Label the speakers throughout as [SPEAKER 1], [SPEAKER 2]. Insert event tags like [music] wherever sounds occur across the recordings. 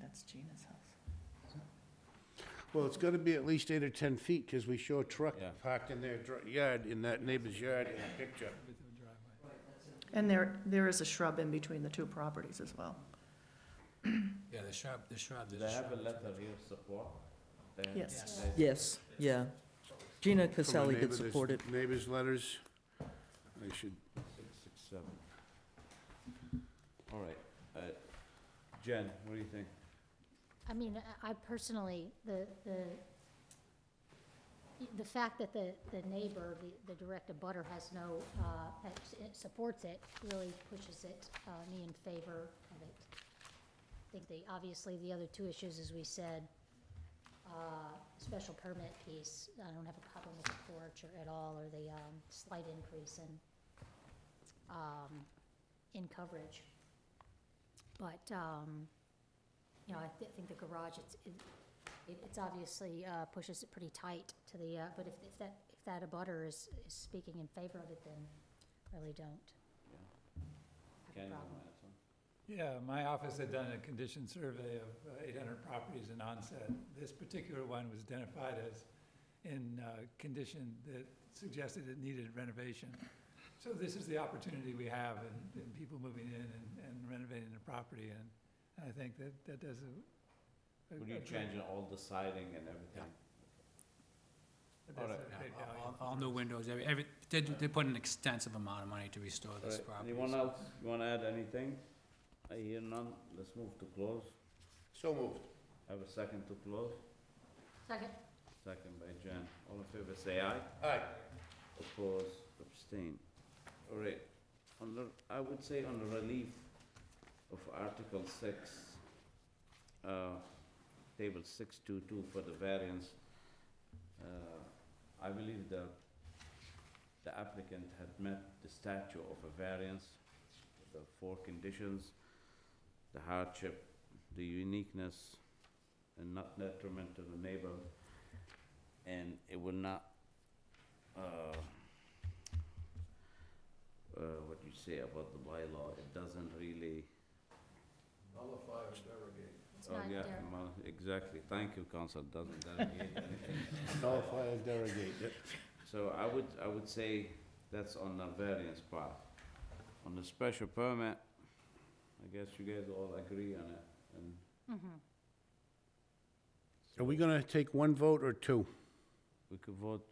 [SPEAKER 1] That's Gina's house.
[SPEAKER 2] Well, it's gotta be at least eight or 10 feet, because we show a truck
[SPEAKER 3] Yeah.
[SPEAKER 2] parked in their dr- yard, in that neighbor's yard in the picture.
[SPEAKER 1] And there, there is a shrub in between the two properties as well.
[SPEAKER 4] Yeah, the shrub, the shrub,
[SPEAKER 3] Do
[SPEAKER 4] there's
[SPEAKER 3] they
[SPEAKER 4] a
[SPEAKER 3] have
[SPEAKER 4] shrub.
[SPEAKER 3] a letter here support? They-
[SPEAKER 1] Yes.
[SPEAKER 3] they-
[SPEAKER 5] Yes, yeah. Gina
[SPEAKER 2] From the
[SPEAKER 5] Caselli did
[SPEAKER 2] neighbor- there's
[SPEAKER 5] support it.
[SPEAKER 2] Neighbors' letters, I should,
[SPEAKER 3] Six, six, seven. All right, uh, Jen, what do you think?
[SPEAKER 6] I mean, I- I personally, the, the, the fact that the, the neighbor, the, the direct abutter has no, uh, that s- it supports it, really pushes it, uh, me in favor of it. I think the, obviously, the other two issues, as we said, uh, special permit piece, I don't have a problem with the porch or at all, or the, um, slight increase in, um, in coverage. But, um, you know, I thi- think the garage, it's, it- it, it's obviously, uh, pushes it pretty tight to the, uh, but if, if that, if that abutter is, is speaking in favor of it, then really don't have
[SPEAKER 3] Ken,
[SPEAKER 6] a
[SPEAKER 3] you wanna
[SPEAKER 6] problem.
[SPEAKER 3] add something?
[SPEAKER 7] Yeah, my office had done a condition survey of uh, eight hundred properties in onset. This particular one was identified as in uh, condition that suggested it needed renovation. So this is the opportunity we have in, in people moving in and- and renovating the property, and and I think that, that does a. a-
[SPEAKER 3] Would you
[SPEAKER 7] a
[SPEAKER 3] change all the siding and everything?
[SPEAKER 7] great- that's a
[SPEAKER 3] Alright.
[SPEAKER 4] Yeah,
[SPEAKER 7] great
[SPEAKER 4] all-
[SPEAKER 7] value.
[SPEAKER 4] all- All new windows, every, every, they, they put an extensive amount of money to restore
[SPEAKER 3] All
[SPEAKER 4] this
[SPEAKER 3] right,
[SPEAKER 4] property.
[SPEAKER 3] Anyone
[SPEAKER 4] so-
[SPEAKER 3] else, you wanna add anything? I hear none, let's move to close.
[SPEAKER 2] so moved.
[SPEAKER 3] Have a second to close,
[SPEAKER 6] Second.
[SPEAKER 3] second by Jen. All in favor, say aye.
[SPEAKER 2] Aye.
[SPEAKER 3] Oppose, abstain. All right, on the, I would say on the relief of Article six, uh, table six two two for the variance, uh, I believe the, the applicant had met the statute of a variance, the four conditions, the hardship, the uniqueness, and not detriment to the neighbor, and it will not uh, uh, what you say about the bylaw, it doesn't really,
[SPEAKER 6] It's
[SPEAKER 3] oh,
[SPEAKER 6] not
[SPEAKER 3] yeah,
[SPEAKER 6] there.
[SPEAKER 3] well, exactly, thank you, council,
[SPEAKER 6] [laughs]
[SPEAKER 3] doesn't derogate anything.
[SPEAKER 2] Nullify and derogate, yep.
[SPEAKER 3] So I would, I would say that's on the variance part. On the special permit, I guess you guys all agree on it, and
[SPEAKER 6] Mhm.
[SPEAKER 2] Are we gonna take one vote or two?
[SPEAKER 3] we could vote,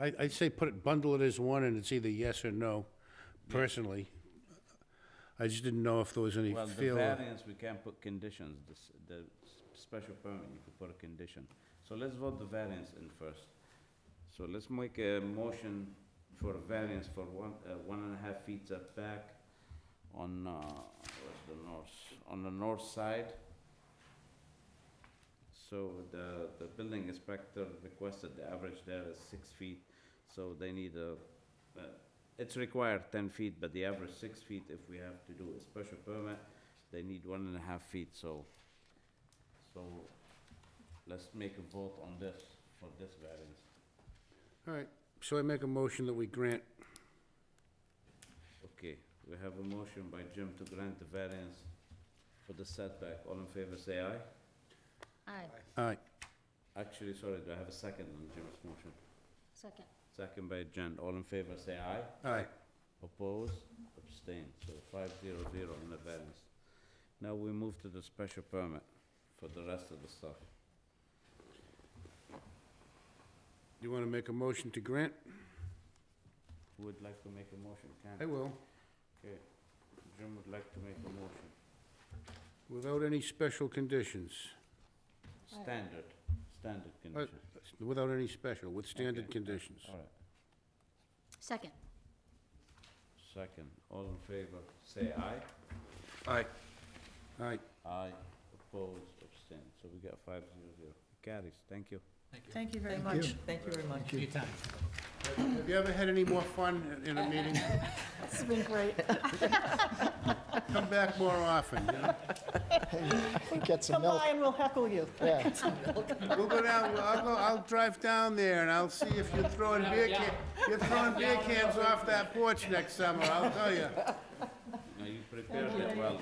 [SPEAKER 2] I, I'd say put it, bundle it as one, and it's either yes or no, personally. I just didn't know if there was any
[SPEAKER 3] well, the
[SPEAKER 2] feel.
[SPEAKER 3] variance, we can't put conditions, the, s- the s- special permit, you could put a condition. So let's vote the variance in first. So let's make a motion for a variance for one, uh, one and a half feet setback on, uh, where's the north, on the north side. So the, the building inspector requested the average there is six feet, so they need a, uh, it's required ten feet, but the average six feet if we have to do a special permit, they need one and a half feet, so, so let's make a vote on this, for this variance.
[SPEAKER 2] All right, so I make a motion that we grant,
[SPEAKER 3] Okay, we have a motion by Jim to grant the variance for the setback. All in favor, say aye.
[SPEAKER 6] Aye,
[SPEAKER 2] all right,
[SPEAKER 3] Actually, sorry, do I have a second on Jim's motion?
[SPEAKER 6] second.
[SPEAKER 3] Second by Jen. All in favor, say aye.
[SPEAKER 2] all right.
[SPEAKER 3] Oppose, abstain, so five zero zero on the variance. Now we move to the special permit for the rest of the stuff.
[SPEAKER 2] You wanna make a motion to grant?
[SPEAKER 3] Who would like to make a motion?
[SPEAKER 2] I
[SPEAKER 3] Can?
[SPEAKER 2] will.
[SPEAKER 3] Okay, Jim would like to make a motion.
[SPEAKER 2] Without any special conditions,
[SPEAKER 6] Aye.
[SPEAKER 3] Standard, standard condition.
[SPEAKER 2] without any special, with standard
[SPEAKER 3] Okay.
[SPEAKER 2] conditions.
[SPEAKER 3] All right.
[SPEAKER 6] Second.
[SPEAKER 3] Second, all in favor, say aye.
[SPEAKER 2] Aye. All right,
[SPEAKER 3] Aye. Opposed, abstain, so we got five zero zero. Carries, thank you.
[SPEAKER 1] Thank you very
[SPEAKER 5] Thank
[SPEAKER 1] much.
[SPEAKER 5] Thank you very much.
[SPEAKER 4] Your time.
[SPEAKER 2] have you ever had any more fun in a meeting?
[SPEAKER 1] It's been great.
[SPEAKER 2] Come back more often, you know?
[SPEAKER 8] Get some
[SPEAKER 1] Come
[SPEAKER 8] milk,
[SPEAKER 1] by and we'll heckle you.
[SPEAKER 8] yeah.
[SPEAKER 2] We'll go down, I'll go, I'll drive down there and I'll see if you're throwing beer can, you're throwing beer cans off that porch next summer, I'll tell you.
[SPEAKER 3] Now, you prepared it well.